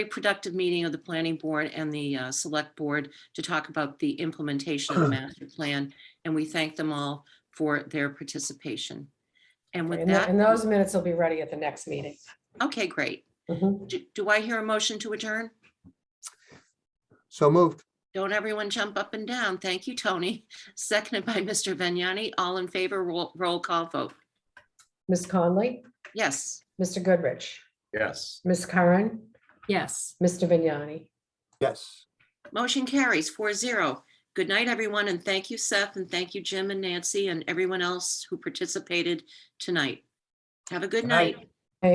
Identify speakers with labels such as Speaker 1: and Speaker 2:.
Speaker 1: very productive meeting of the planning board and the uh, select board to talk about the implementation of the master plan. And we thank them all for their participation. And with
Speaker 2: And tho- and
Speaker 1: that,
Speaker 2: those minutes will be ready at the next meeting.
Speaker 1: okay, great.
Speaker 2: Mhm.
Speaker 1: Do- Do I hear a motion to adjourn?
Speaker 3: So moved.
Speaker 1: Don't everyone jump up and down. Thank you, Tony. Seconded by Mr. Vignani. All in favor, roll, roll call vote.
Speaker 2: Ms. Conley,
Speaker 1: Yes.
Speaker 2: Mr. Goodrich,
Speaker 4: Yes.
Speaker 2: Ms. Curran,
Speaker 5: Yes.
Speaker 2: Mr. Vignani.
Speaker 3: Yes.
Speaker 1: Motion carries four zero. Good night, everyone, and thank you, Seth, and thank you, Jim and Nancy, and everyone else who participated tonight. Have a good
Speaker 4: Good night.
Speaker 1: night.